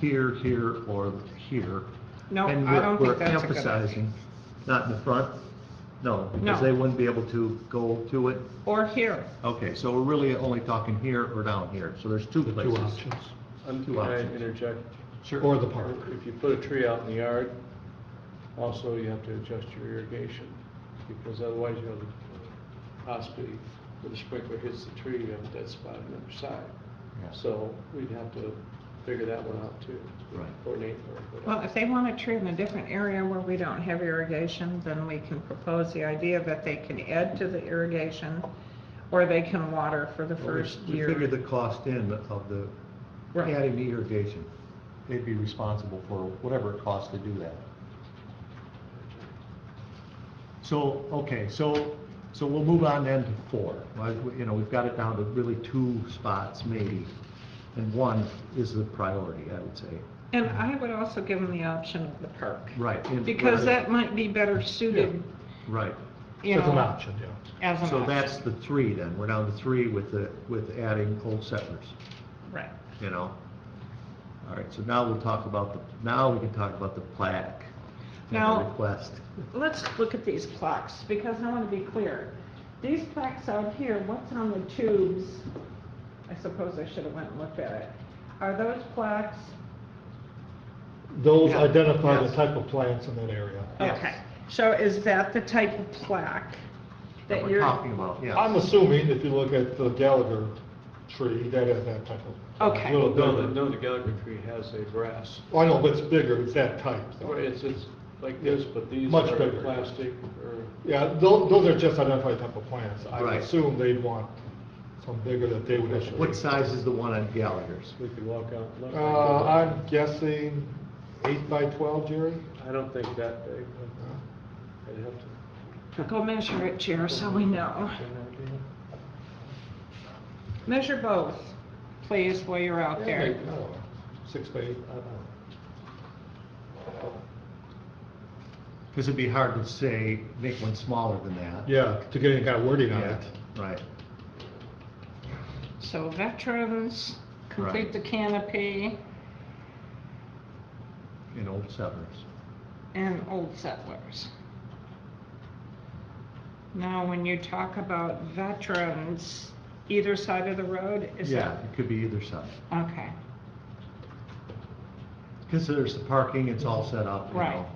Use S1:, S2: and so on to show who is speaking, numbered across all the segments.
S1: here, here, or here.
S2: No,
S1: And
S2: I
S1: we're-
S2: don't think that's a
S1: We're
S2: good idea.
S1: emphasizing, not in the front, no, because
S2: No.
S1: they wouldn't be able to go to it.
S2: Or here.
S1: Okay, so we're really only talking here or down here, so there's two
S3: the two
S1: places.
S3: options.
S4: Um,
S1: Two
S4: Can I
S1: options.
S4: interject?
S3: Or the park.
S4: If you put a tree out in the yard, also you have to adjust your irrigation, because otherwise you have possibly, when the sprinkler hits the tree, you have a dead spot on the other side.
S1: Yeah.
S4: So we'd have to figure that one out too.
S1: Right.
S4: Coordinate or
S2: Well,
S4: whatever.
S2: if they want a tree in a different area where we don't have irrigation, then we can propose the idea that they can add to the irrigation or they can water for the
S1: Well, we-
S2: first year.
S1: We figured the cost in of the,
S2: Right.
S1: adding the irrigation. They'd be responsible for whatever it costs to do that. So, okay, so, so we'll move on then to four. Well, we- You know, we've got it down to really two spots maybe, and one is the priority, I would say.
S2: And I would also give them the option of the park.
S1: Right. and-
S2: Because that might be better suited,
S1: Right.
S2: you
S3: As an
S2: know,
S3: option, yeah.
S2: as an
S1: So that's
S2: option.
S1: the three then. We're down to three with the, with adding Old Settlers.
S2: Right.
S1: you know? All right, so now we'll talk about the, now we can talk about the plaque and the
S2: Now-
S1: request.
S2: Let's look at these plaques, because I want to be clear. These plaques out here, what's on the tubes? I suppose I should have went and looked at it. Are those plaques?
S3: Those
S1: Yeah.
S3: identify the
S1: Yes.
S3: type of plants in that area.
S1: Yes.
S2: Okay, so is that the type of plaque that
S1: We're
S2: you're?
S1: talking about,
S3: I'm
S1: yeah.
S3: assuming if you look at the Gallagher tree, that is that type of.
S2: Okay.
S3: Little
S4: No, the,
S3: bigger.
S4: no, the Gallagher tree has a grass.
S3: Oh, I know, but it's bigger, it's that type. though.
S4: Well, It's, it's like this, but these
S3: Oh. Much
S4: are
S3: bigger.
S4: plastic or,
S3: Yeah, tho- those are just identified type of plants. I would
S1: Right.
S3: assume they'd want some bigger that they would issue.
S1: What size is the one on Gallagher's?
S4: we could walk out and look.
S3: Uh, I'm guessing eight by twelve, Jerry?
S4: I don't think that big,
S3: Uh,
S4: but I'd have to.
S2: Go measure it, Chair, so we know.
S4: get an idea.
S2: Measure both, please, while you're out
S3: yeah,
S2: there.
S3: like, I don't know, Six by eight, I don't know.
S1: Because it'd be hard to say, make one smaller than that.
S3: Yeah, to get any kind of wording on
S1: Yeah,
S3: it.
S1: right.
S2: So veterans, complete
S1: Right.
S2: the canopy,
S1: In Old Settlers.
S2: and old settlers. Now, when you talk about veterans, either side of the road, is
S1: Yeah,
S2: that?
S1: it could be either side.
S2: Okay,
S1: Because there's the parking, it's all set up, you
S2: Right.
S1: know.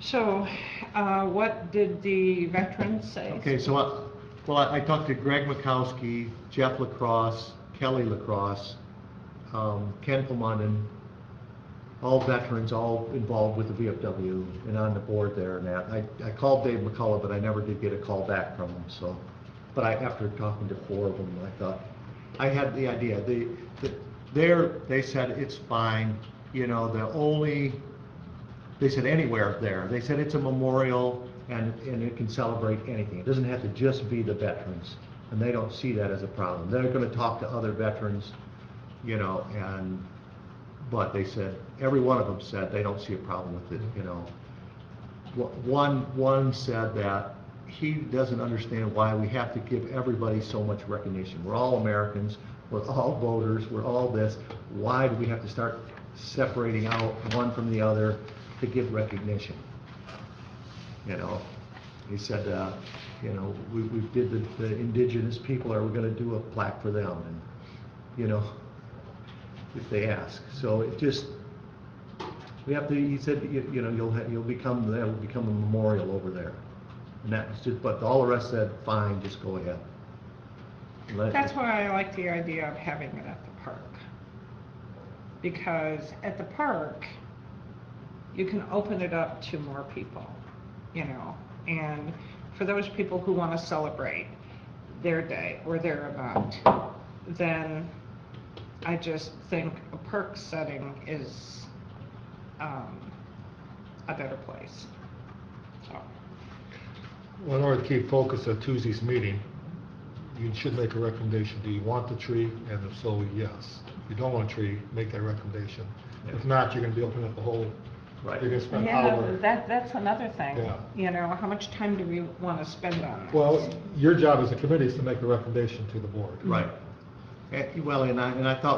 S2: so, uh, what did the veterans say?
S1: Okay, so, I- well, I I talked to Greg Mikowski, Jeff Lacrosse, Kelly Lacrosse, um, Ken Pomonden, all veterans, all involved with the VFW and on the board there and that. I, I called Dave McCullough, but I never did get a call back from him, so. But I, after talking to four of them, I thought, I had the idea, the, the- there, they said it's fine, you know, the only, they said anywhere there. They said it's a memorial and, and it can celebrate anything. It doesn't have to just be the veterans. And they don't see that as a problem. They're gonna talk to other veterans, you know, and, but they said, every one of them said they don't see a problem with it, you know. Wha- One, one said that he doesn't understand why we have to give everybody so much recognition. We're all Americans, we're all voters, we're all this. Why do we have to start separating out one from the other to give recognition? You know, he said, uh, you know, we, we did the, the indigenous people, are we gonna do a plaque for them? And, you know, if they ask. So it just, we have to, he said, you you know, you'll, ha- you'll become, that'll become a memorial over there. And that was just, but all the rest said, fine, just go ahead. Let-
S2: That's why I like the idea of having it at the park. Because at the park, you can open it up to more people, you know? And for those people who want to celebrate their day or their event, then I just think a park setting is, um, a better place. So,
S3: Well, in order to keep focus at Tuesday's meeting, you should make a recommendation. Do you want the tree? And if so, yes. If you don't want a tree, make that recommendation. If not, you're gonna be opening up the whole, you're
S1: Right.
S3: gonna spend
S2: yeah,
S3: hours.
S2: that, that's another thing,
S3: Yeah.
S2: you know, how much time do we want to spend on this?
S3: Well, your job as a committee is to make a recommendation to the board.
S1: Right. Eh, Well, and I, and I thought